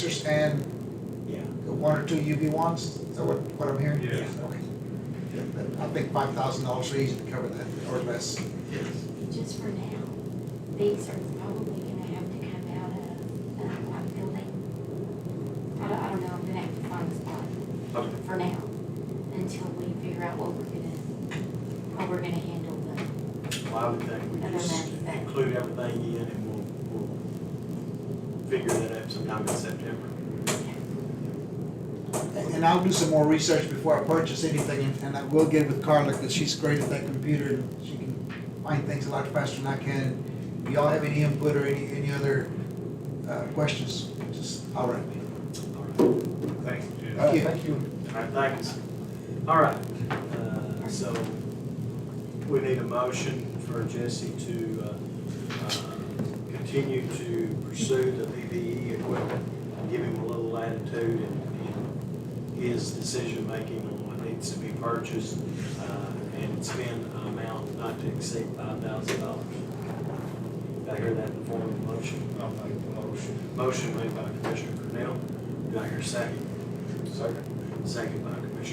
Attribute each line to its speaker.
Speaker 1: understand
Speaker 2: Yeah.
Speaker 1: the one or two UV ones, is that what, what I'm hearing?
Speaker 3: Yes.
Speaker 1: Okay. Yeah, but I think five thousand dollars is easy to cover that, or less.
Speaker 3: Yes.
Speaker 4: just for now, these are probably gonna have to come out of, uh, our building. I don't, I don't know, I'm gonna have to find a spot
Speaker 3: Okay.
Speaker 4: for now, until we figure out what we're gonna, how we're gonna handle the,
Speaker 2: Well, I would think we
Speaker 4: Other
Speaker 2: just
Speaker 4: than that.
Speaker 2: include everything in and we'll, we'll figure that out sometime in September.
Speaker 1: And and I'll do some more research before I purchase anything, and- and I will get with Carla, because she's great at that computer, and she can find things a lot faster than I can. If y'all have any input or any, any other, uh, questions, just holler at me.
Speaker 2: All right,
Speaker 3: Thank you, Jim.
Speaker 1: Uh, Thank you.
Speaker 2: All right, thanks. All right, uh, so we need a motion for Jesse to, uh, uh, continue to pursue the PPE equipment, and give him a little latitude in, in his decision-making on what needs to be purchased, uh, and spend an amount not to exceed five thousand dollars. I hear that in the form of a motion.
Speaker 3: I'll make the motion.
Speaker 2: Motion made by Commissioner Cornell. Do I hear a second? Second. Second by Commissioner